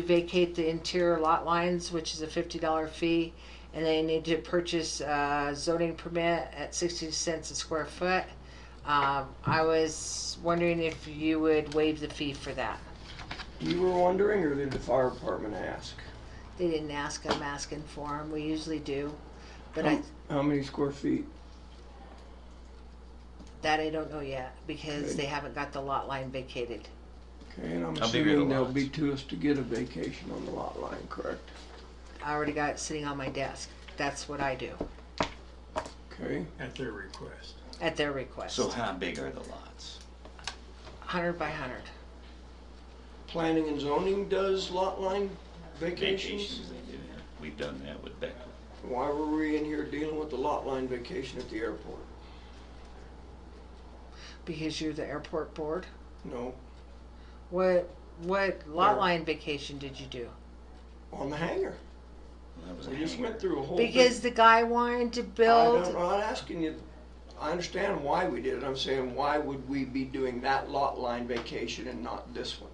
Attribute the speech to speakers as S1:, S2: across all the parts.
S1: to vacate the interior lot lines, which is a fifty dollar fee, and they need to purchase a zoning permit at sixty cents a square foot. Um, I was wondering if you would waive the fee for that.
S2: You were wondering, or did the fire department ask?
S1: They didn't ask, I'm asking for them, we usually do, but I,
S2: How many square feet?
S1: that I don't know yet, because
S2: Okay.
S1: they haven't got the lot line vacated.
S2: Okay, and I'm
S3: How big are the
S2: assuming there'll
S3: lots?
S2: be to us to get a vacation on the lot line, correct?
S1: I already got it sitting on my desk, that's what I do,
S2: Okay,
S4: at their request.
S1: at their request,
S3: So how big are the lots?
S1: hundred by hundred.
S2: planning and zoning does lot line vacations?
S3: Vacations they do, yeah. We've done that with Beckwood.
S2: Why were we in here dealing with the lot line vacation at the airport?
S1: Because you're the airport board?
S2: No,
S1: What, what lot
S2: There.
S1: line vacation did you do?
S2: on the hangar.
S3: Well, That was a
S2: We just
S3: hangar.
S2: went through a whole. big-
S1: Because the guy wanted to
S2: I don't,
S1: build,
S2: I'm not asking you, I understand why we did it, I'm saying, why would we be doing that lot line vacation and not this one?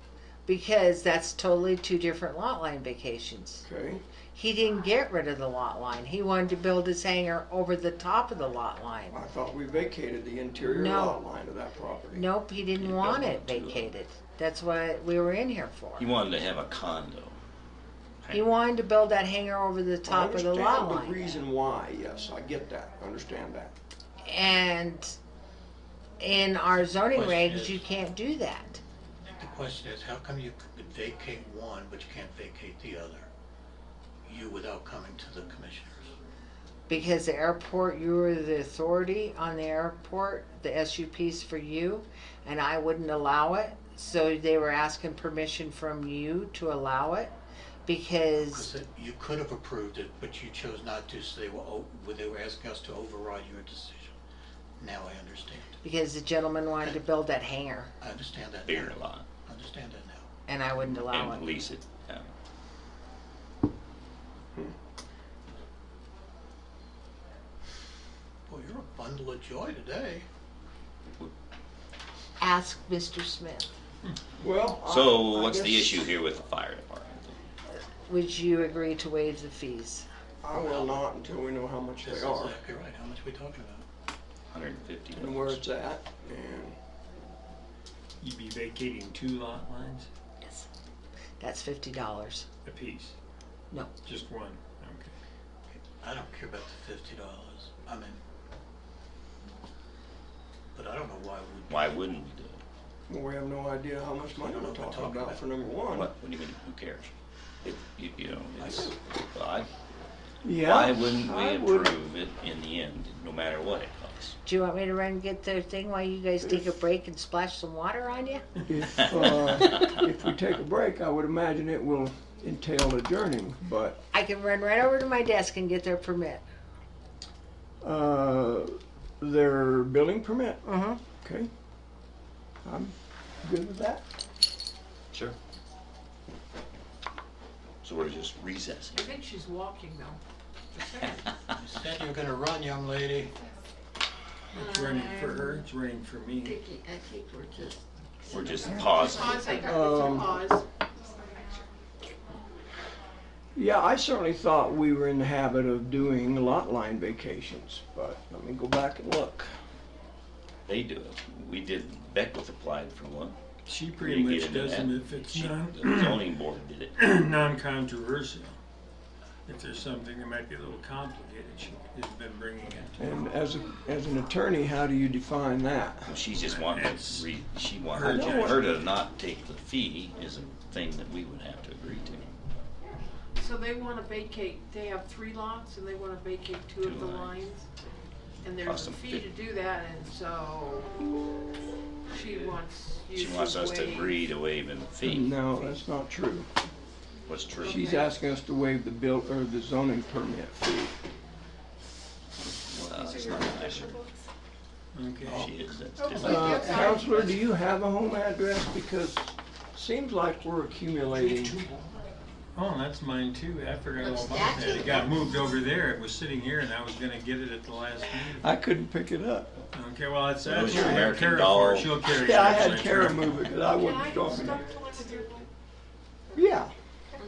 S1: because that's totally two different lot line vacations.
S2: Okay,
S1: He didn't get rid of the lot line, he wanted to build his hangar over the top of the lot line.
S2: I thought we vacated the interior
S1: No.
S2: lot line of that property.
S1: Nope, he
S3: You
S1: didn't
S3: don't
S1: want it
S3: want to.
S1: vacated, that's what we were in here for.
S3: He wanted to have a condo.
S1: He wanted to build that hangar over the top of the lot
S2: I understand the
S1: line.
S2: reason why, yes, I get that, I understand that.
S1: And in our zoning
S4: Question
S1: regs,
S4: is-
S1: you can't do that.
S4: The question is, how come you could vacate one, but you can't vacate the other? You without coming to the commissioners?
S1: Because the airport, you were the authority on the airport, the SUP's for you, and I wouldn't allow it. So they were asking permission from you to allow it because
S4: Because you could have approved it, but you chose not to, so they were, o- well, they were asking us to override your decision. Now I understand.
S1: because the gentleman wanted to build that hangar
S4: I understand that
S3: Bigger
S4: now.
S3: lot
S4: I understand that now.
S1: and I wouldn't allow
S3: and
S1: it.
S3: lease it. out.
S2: Hmm.
S4: Boy, you're a bundle of joy today.
S1: Ask Mr. Smith.
S2: Well. I-
S3: So
S2: I
S3: what's the
S2: guess
S3: issue here with the fire department?
S1: Would you agree to waive the fees?
S2: I will not until we know how much
S4: This
S2: they
S4: is
S2: are
S4: exactly right. How much are we talking about?
S3: Hundred and fifty
S2: and where it's at, and
S5: You'd be vacating two lot lines
S1: Yes. That's fifty dollars.
S5: apiece?
S1: No.
S5: Just one, okay.
S4: I don't care about the fifty dollars. I mean, but I don't know why we
S3: Why wouldn't we do it?
S2: well, we have no idea how much money we're talking about for number one.
S3: What, what do you mean, who cares? It, you, you know,
S4: I
S3: it's,
S4: do.
S3: well, I,
S2: Yeah.
S3: why wouldn't we
S2: I would-
S3: approve it in the end, no matter what it costs?
S1: Do you want me to run and get their thing while you guys take a break and splash some water on you?
S2: If, uh, if we take a break, I would imagine it will entail adjourning, but,
S1: I can run right over to my desk and get their permit.
S2: uh, their building permit,
S1: Mm-hmm.
S2: okay? I'm good with that.
S3: Sure. So we're just recessing.
S6: I think she's walking though.
S4: You said you were gonna run, young lady.
S5: It's running for her, it's running for
S6: I
S5: me.
S6: think, I think we're just.
S3: We're just pausing.
S6: Pause, I
S2: Um,
S6: pause.
S2: Yeah, I certainly thought we were in the habit of doing lot line vacations, but let me go back and look.
S3: They do it. We did, Beckwith applied for one.
S5: She
S3: We
S5: pretty
S3: didn't get
S5: much
S3: into
S5: does them
S3: that.
S5: if it's
S3: She-
S5: non,
S3: The zoning board did it.
S5: non-controversial. If there's something that might be a little complicated, she has been bringing it.
S2: And as, a, as an attorney, how do you define that?
S3: She just wanted
S5: It's
S3: to re, she
S5: her
S3: wanted
S5: judgment.
S3: her to not take the fee is a thing that we would have to agree to.
S6: So they wanna vacate, they have three lots and they wanna vacate two
S3: Two
S6: of the
S3: lines.
S6: lines. And there's
S3: Cost
S6: a
S3: them
S6: fee to
S3: fif-
S6: do that and so she wants you
S3: She
S6: to
S3: wants us to
S6: waive-
S3: agree to waive the fee.
S2: No, that's not true.
S3: What's true? Uh,
S2: She's asking us to waive the bill, or the zoning permit fee.
S3: Well, it's not nicer.
S5: Okay.
S3: She is, that's
S6: Oh.
S3: different.
S2: Uh,
S6: Yes, I-
S2: Counselor, do you have a home address? Because seems like we're accumulating.
S5: Oh, that's mine too. I forgot all about
S6: That's
S5: that. It
S6: it.
S5: got moved over there. It was sitting here and I was gonna get it at the last meeting.
S2: I couldn't pick it up.
S5: Okay, well, it's,
S3: Those are
S5: that's what I have
S3: American
S5: Kara
S3: Doll.
S5: for. She'll carry it.
S2: Yeah, I had
S5: actually.
S2: Kara move it, because I
S6: Can
S2: wasn't
S6: I get
S2: talking.
S6: stuck to one of your?
S2: Yeah,